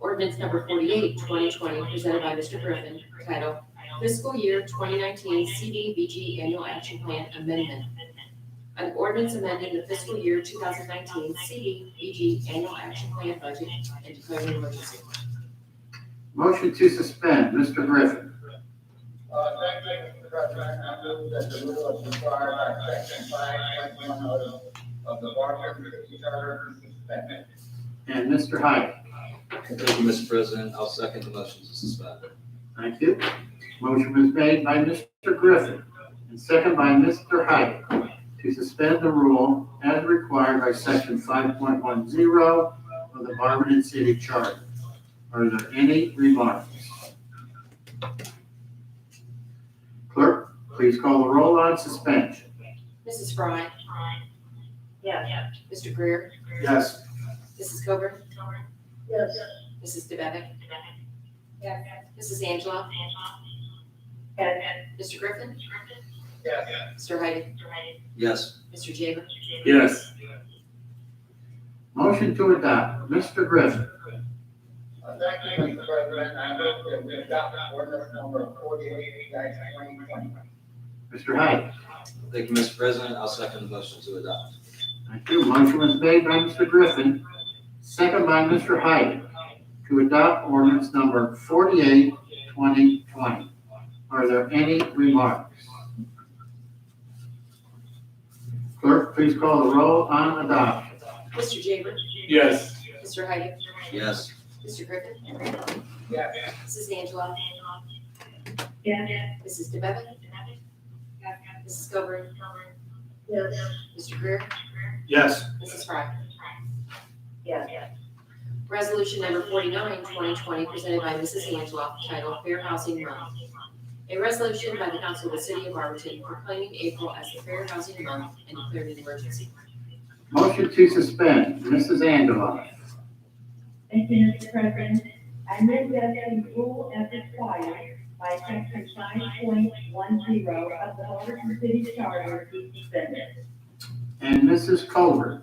Ordinance number 48, 2020, presented by Mr. Griffin, titled Fiscal Year twenty nineteen CDBG Annual Action Plan Amendment. An ordinance amending the fiscal year two thousand nineteen CDBG Annual Action Plan Budget and declaring an emergency. Motion to suspend, Mr. Griffin. Uh, thank you, Mr. President. I move that the rule as required by section five, point one oh of the Barker City Charter be suspended. And Mr. Hyde. Thank you, Mr. President. I'll second the motion to suspend. Thank you. Motion was made by Mr. Griffin and second by Mr. Hyde to suspend the rule as required by section five point one zero of the Barberton City Charter. Are there any remarks? Clerk, please call the roll on suspension. Mrs. Frye? Yes. Mr. Greer? Yes. Mrs. Coburn? Yes. Mrs. DeBevick? Yes. Mrs. Angela? Yes. Mr. Griffin? Yes. Mr. Heide? Yes, Mr. Jaber? Yes. Motion to adopt, Mr. Griffin. Uh, thank you, Mr. President. I move that we adopt ordinance number forty-eight, twenty twenty. Mr. Hyde. thank you, Mr. President. I'll second the motion to adopt. Thank you. Motion was made by Mr. Griffin, second by Mr. Hyde, to adopt ordinance number 48, 2020. Are there any remarks? Clerk, please call the roll on adoption. Mr. Jaber? Yes. Mr. Heide? Yes, Mr. Griffin? Yes. Mrs. Angela? Yes. Mrs. DeBevick? Mrs. Coburn? Yes. Mr. Greer? Yes. Mrs. Frye? Yes. Resolution number 49, 2020, presented by Mrs. Angela, titled Fair Housing Month. A resolution by the Council of the City of Arlington proclaiming April as the Fair Housing Month and declaring an emergency. Motion to suspend, Mrs. Angela. Thank you, Mr. President. I move that the rule as required by section five point one zero of the Fullerton City Charter be suspended. And Mrs. Culver.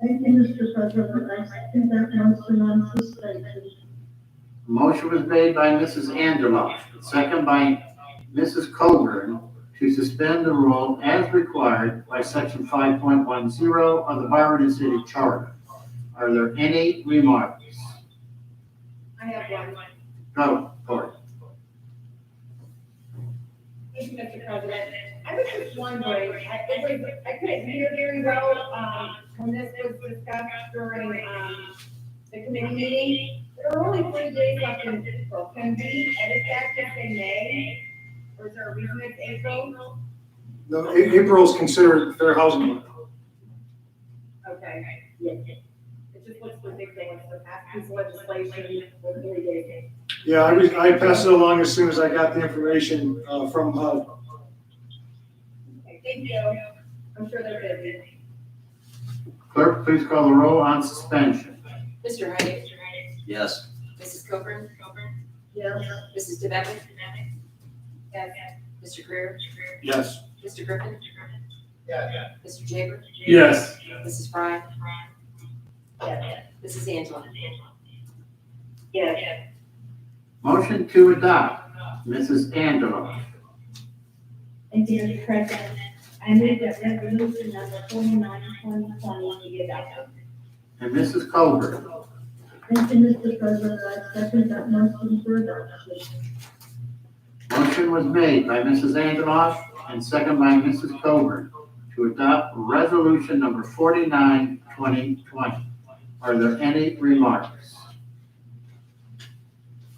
Thank you, Mr. President. I second that motion on suspension. Motion was made by Mrs. Angela, second by Mrs. Colburn, to suspend the rule as required by section five point one zero of the Byron City Charter. Are there any remarks? I have one. Go, Cory. Thank you, Mr. President. I was just wondering, I, it was- I couldn't hear very well, um, when this was discussed during, um, the committee meeting. There are only three days left in April. Can we edit that just in May? Or is there a reason it's April? No, A- April's considered fair housing month. Okay. It just looks ridiculous to pass this legislation with three days. Yeah, I, re- I passed it along as soon as I got the information, uh, from HUD. Okay, Thank you. I'm sure they're busy. Clerk, please call the roll on suspension. Mr. Heide? yes, Mrs. Coburn? Yes. Mrs. DeBevick? Yes. Mr. Greer? Yes. Mr. Griffin? Yes. Mr. Jaber? Yes. Mrs. Frye? Yes. Mrs. Angela? Yes. Motion to adopt, Mrs. Angela. Thank you, Mr. President. I move that resolution number forty-nine, twenty twenty be adopted. And Mrs. Culver. Thank you, Mr. President. I second that motion for adoption. Motion was made by Mrs. Angeloff and second by Mrs. Coburn to adopt resolution number 49, 2020. Are there any remarks?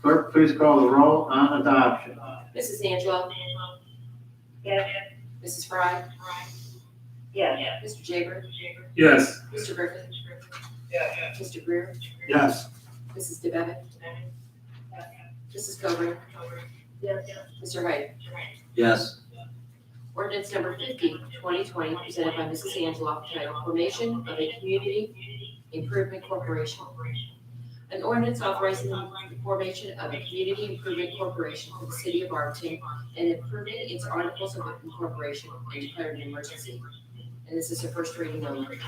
Clerk, please call the roll on adoption. Mrs. Angela? Yes. Mrs. Frye? Yes. Mr. Jaber? Yes. Mr. Griffin? Yes. Mr. Greer? Yes. Mrs. DeBevick? Mrs. Coburn? Yes. Mr. Heide? yes, Ordinance number 50, 2020, presented by Mrs. Angela, titled Formation of a Community Improvement Corporation. An ordinance authorizing the formation of a community improvement corporation for the city of Arlington and improving its articles of incorporation and declaring an emergency. And this is a first reading only.